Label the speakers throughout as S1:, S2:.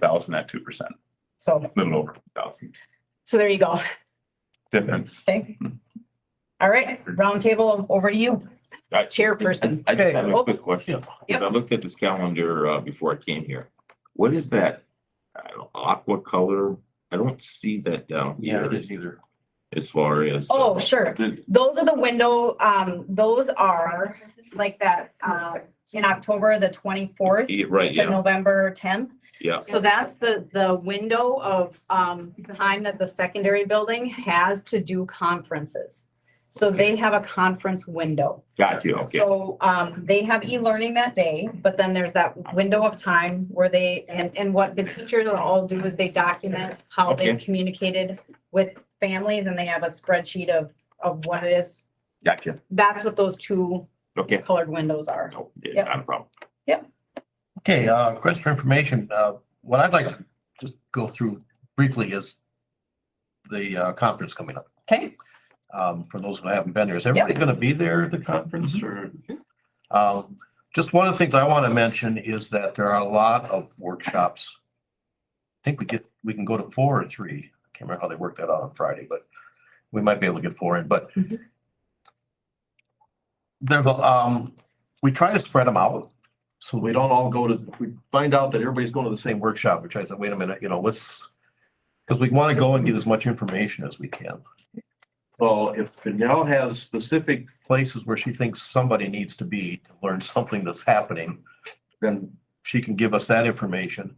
S1: thousand at two percent,
S2: So,
S1: a little over two thousand
S2: so there you go.
S1: difference.
S2: Okay. All right, roundtable, over to you, chairperson.
S3: I just have
S2: Oh.
S3: a quick question. Because I looked at this calendar uh before I came here. What is that? I don't- Aqua color? I don't see that down here
S1: is either.
S3: as far as. uh,
S2: Oh, sure.
S1: The-
S2: Those are the window, um, those are like that, uh, in October, the twenty-fourth
S3: Yeah, Right,
S2: to
S3: yeah,
S2: November tenth.
S3: yeah.
S2: So that's the, the window of, um, time that the secondary building has to do conferences. So they have a conference window.
S3: Got you, okay.
S2: So, um, they have e-learning that day, but then there's that window of time where they, and, and what the teachers will all do is they document how they've communicated with families and they have a spreadsheet of, of what it is.
S3: Gotcha.
S2: That's what those two
S3: Okay.
S2: colored windows are.
S3: No,
S2: Yep.
S3: yeah, not a problem.
S4: Okay, uh, request for information, uh, what I'd like to just go through briefly is the, uh, conference coming up,
S2: Okay,
S4: um, for those who haven't been there. Is everybody gonna be there at the
S1: Mm-hmm.
S4: conference or? Um, just one of the things I wanna mention is that there are a lot of workshops. I think we get, we can go to four or three. I can't remember how they worked that out on Friday, but we might be able to get four in, but
S2: Mhm.
S4: there's, a, um, we try to spread them out. So we don't all go to, if we find out that everybody's going to the same workshop, which I said, wait a minute, you know, let's, because we want to go and get as much information as we can. So if Danielle has specific places where she thinks somebody needs to be to learn something that's happening, then she can give us that information.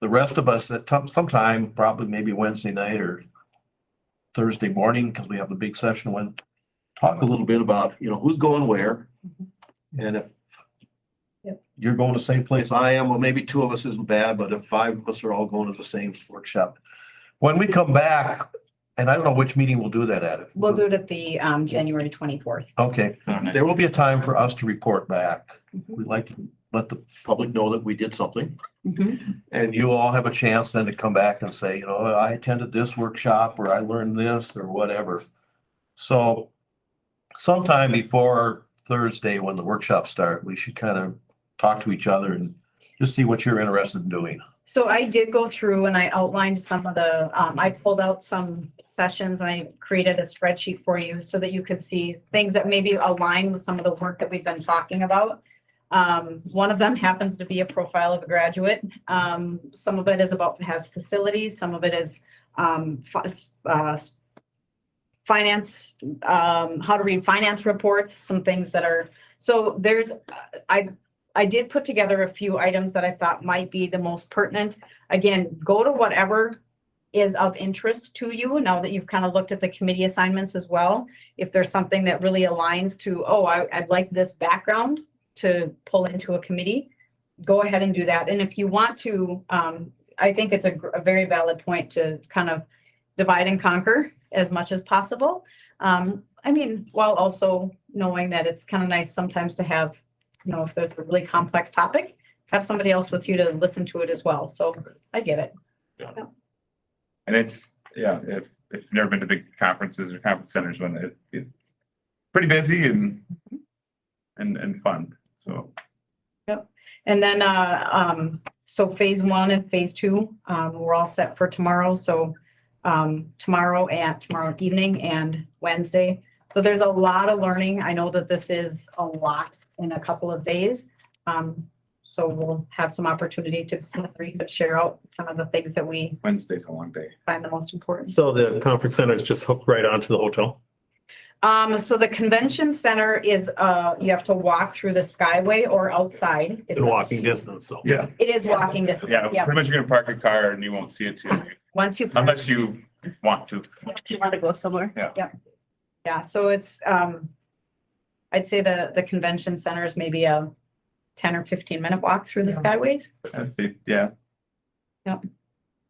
S4: The rest of us at tom- sometime, probably maybe Wednesday night or Thursday morning, because we have the big session when, talk a little bit about, you know, who's going where.
S2: Mm-hmm.
S4: And if you're going to the same place I am, well, maybe two of us isn't bad, but if five of us are all going to the same workshop. When we come back, and I don't know which meeting we'll do that at. if-
S2: we'll do it at the, um, January twenty-fourth.
S4: Okay, there will be a time for us to report back.
S2: Mm-hmm.
S4: We'd like to let the public know that we did something. And you all have a chance then to come back and say, you know, I attended this workshop or I learned this or whatever. So sometime before Thursday, when the workshops start, we should kind of talk to each other and just see what you're interested in doing.
S2: So I did go through and I outlined some of the, um, I pulled out some sessions and I created a spreadsheet for you so that you could see things that maybe align with some of the work that we've been talking about. Um, one of them happens to be a profile of a graduate. Um, some of it is about, has facilities, some of it is, um, fi- uh, finance, um, how to read finance reports, some things that are, so there's, I I did put together a few items that I thought might be the most pertinent. Again, go to whatever is of interest to you now that you've kind of looked at the committee assignments as well. If there's something that really aligns to, oh, I, I'd like this background to pull into a committee, go ahead and do that. And if you want to, um, I think it's a, gr- a very valid point to kind of divide and conquer as much as possible. Um, I mean, while also knowing that it's kind of nice sometimes to have you know, if there's a really complex topic, have somebody else with you to listen to it as well. So I get it.
S1: And it's, yeah, if, if you've never been to big conferences or conference centers, when it, it, pretty busy and, and, and fun, so.
S2: And then, uh, um, so phase one and phase two, um, we're all set for tomorrow. So, um, tomorrow and tomorrow evening and Wednesday. So there's a lot of learning. I know that this is a lot in a couple of days. Um, so we'll have some opportunity to share out some of the things that we
S1: Wednesday's a long day.
S2: find the most important.
S5: So the conference center is just hooked right onto the hotel.
S2: Um, so the convention center is, uh, you have to walk through the skyway or outside.
S5: It's in walking distance, so.
S1: Yeah.
S2: It is walking distance,
S1: Yeah,
S2: yeah.
S1: pretty much you're gonna park your car and you won't see it till,
S2: Once you,
S1: unless you want to.
S6: you want to go somewhere.
S2: yeah, so it's, um, I'd say the, the convention center is maybe a ten or fifteen minute walk through the skyways.
S1: That's it, Yeah.
S2: Yep.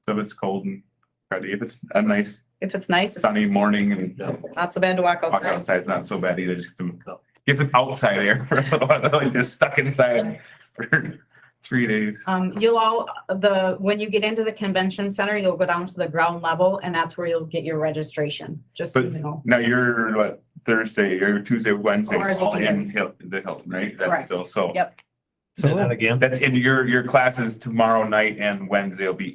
S1: So if it's cold and cruddy, if it's a nice
S2: If it's nice, it's
S1: sunny morning and
S2: not so bad to walk
S1: walk
S2: outside.
S1: outside, it's not so bad either, just some, get some outside air for a little while, you're stuck inside for three days.
S2: Um, you'll all, the, when you get into the convention center, you'll go down to the ground level and that's where you'll get your registration, just so you
S1: But-
S2: know.
S1: Now you're what, Thursday, or Tuesday, Wednesday,
S2: Ours
S1: it's
S2: will
S1: all
S2: be there.
S1: in Hil- the Hilton, right? That's
S2: Correct.
S1: still, so.
S2: Yep.
S5: Say that again.
S1: That's in your, your classes tomorrow night and Wednesday will be